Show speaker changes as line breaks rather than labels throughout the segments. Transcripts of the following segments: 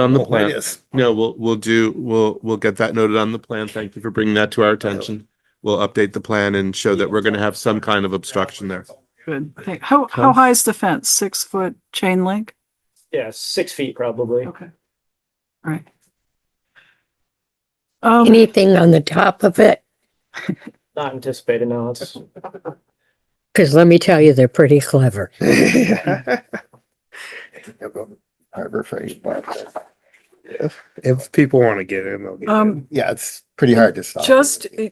On the
Oh, it
plan,
is.
no, we'll, we'll do, we'll, we'll get that noted on the plan. Thank you for bringing that
Oh.
to our attention. We'll update the plan and show that we're gonna have some kind of obstruction there.
Good. Okay, How, how
Huh?
high is the fence? Six foot chain link?
Yeah, six feet probably.
Okay. All right. Um,
Anything on the top of it?
Not anticipated, no, it's,
Because let me tell you, they're pretty clever.
They'll go Harbor Freight, but if- If people want to get in, they'll get in.
Um,
Yeah, it's pretty hard to stop.
just eh,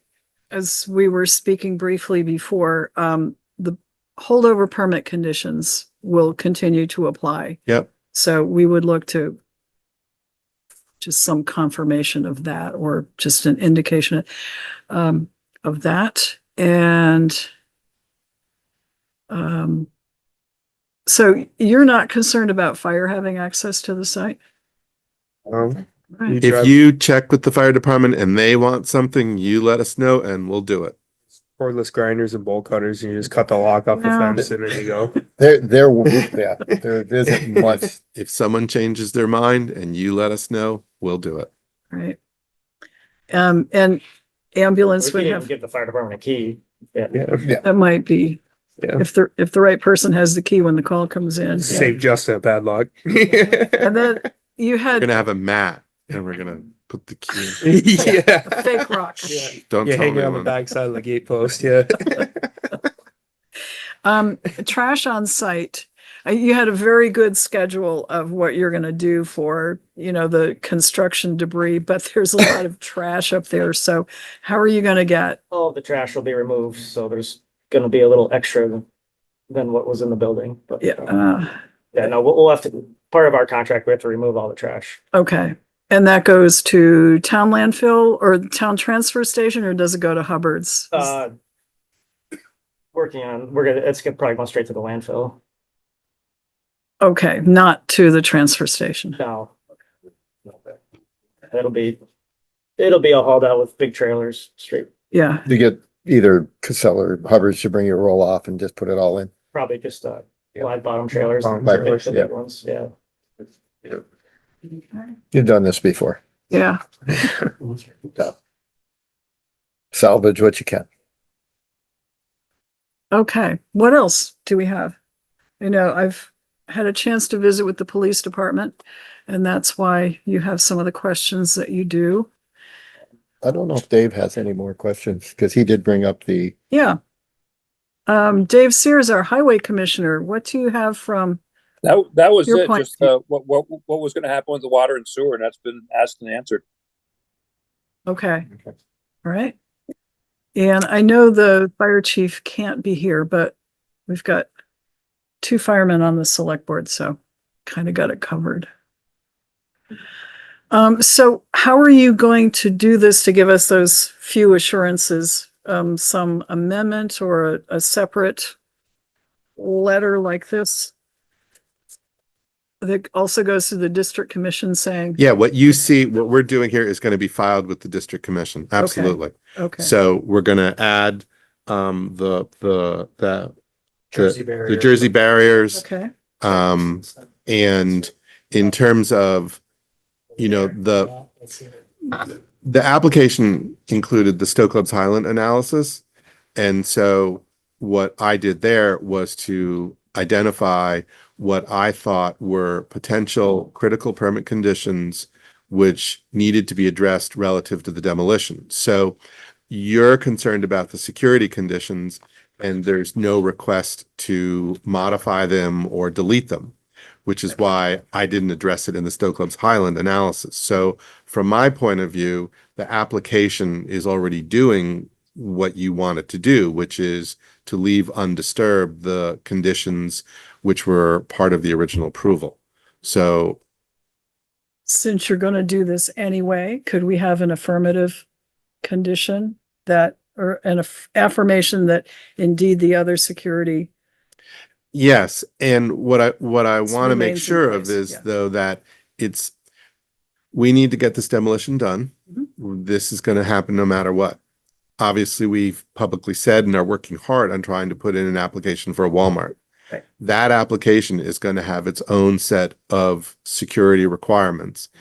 as we were speaking briefly before, um, the holdover permit conditions will continue to apply.
Yep.
So we would look to just some confirmation of that or just an indication um, of that and um, so you're not concerned about fire having access to the site?
Um,
Right.
If you check with the fire department and they want something, you let us know and we'll do it.
Cordless grinders and bowl cutters, and you just cut the lock off the
No.
fence and there you go.
There, there, w- yeah, there isn't much.
If someone changes their mind and you let us know, we'll do it.
Right. Um, and ambulance
we
would
can even
have,
give the fire department a key.
Yeah,
that might be,
Yeah.
if the, if the right person has the key when the call comes in.
save Justin a padlock.
And then you
We're
had
gonna have a mat and we're gonna put the key.
Yeah.
a fake rock.
Yeah,
Don't tell
hang it on the
anyone.
backside of the gate post, yeah.
Um, trash on site. Uh, You had a very good schedule of what you're gonna do for, you know, the construction debris, but there's a lot of trash up there. So how are you gonna get?
All of the trash will be removed, so there's gonna be a little extra than what was in the building, but.
Yeah, uh,
Yeah, no, we'll, we'll have to, part of our contract, we have to remove all the trash.
okay. And that goes to town landfill or town transfer station, or does it go to Hubbard's?
Uh, working on, we're gonna, it's gonna probably go straight to the landfill
Okay, not to the transfer station.
now. It'll be, it'll be all hauled out with big trailers, straight,
Yeah,
You get either Casella or Hubbard should bring your roll off and just put it all in.
probably just, uh, wide bottom trailers.
Bottom
the big-
trailers,
the
yeah.
big Ones, yeah.
You've done this before.
yeah.
Salvage what you can.
Okay, what else do we have? You know, I've had a chance to visit with the police department, and that's why you have some of the questions that you do.
I don't know if Dave has any more questions because he did bring up the,
Yeah. Um, Dave Sears, our highway commissioner, what do you have from,
That, that was
Your
it,
point.
just, uh, what, what, what was gonna happen with the water and sewer, and that's been asked and answered.
okay, all right. And I know the fire chief can't be here, but we've got two firemen on the select board, so kind of got it covered. Um, so how are you going to do this to give us those few assurances? Um, some amendment or a, a separate letter like this? That also goes to the district commission saying,
Yeah, what you see, what we're doing here is gonna be filed with the district commission. Absolutely.
okay,
So we're gonna add, um, the, the, the, Jersey the Jersey barriers.
okay,
Um, and in terms of, you know, the, the application included the Stowe Club's Highland analysis. And so what I did there was to identify what I thought were potential critical permit conditions which needed to be addressed relative to the demolition. So you're concerned about the security conditions and there's no request to modify them or delete them, which is why I didn't address it in the Stowe Club's Highland analysis. So from my point of view, the application is already doing what you want it to do, which is to leave undisturbed the conditions which were part of the original approval. So
since you're gonna do this anyway, could we have an affirmative condition that, or an aff- affirmation that indeed the other security
Yes, and what I, what I
This
want to make
remains in
sure of
place,
is
yeah.
though that it's, we need to get this demolition done.
Mm-hmm.
This is going to happen no matter what. Obviously, we've publicly said and are working hard on trying to put in an application for a Walmart.
Right.
That application is going to have its own set of security requirements.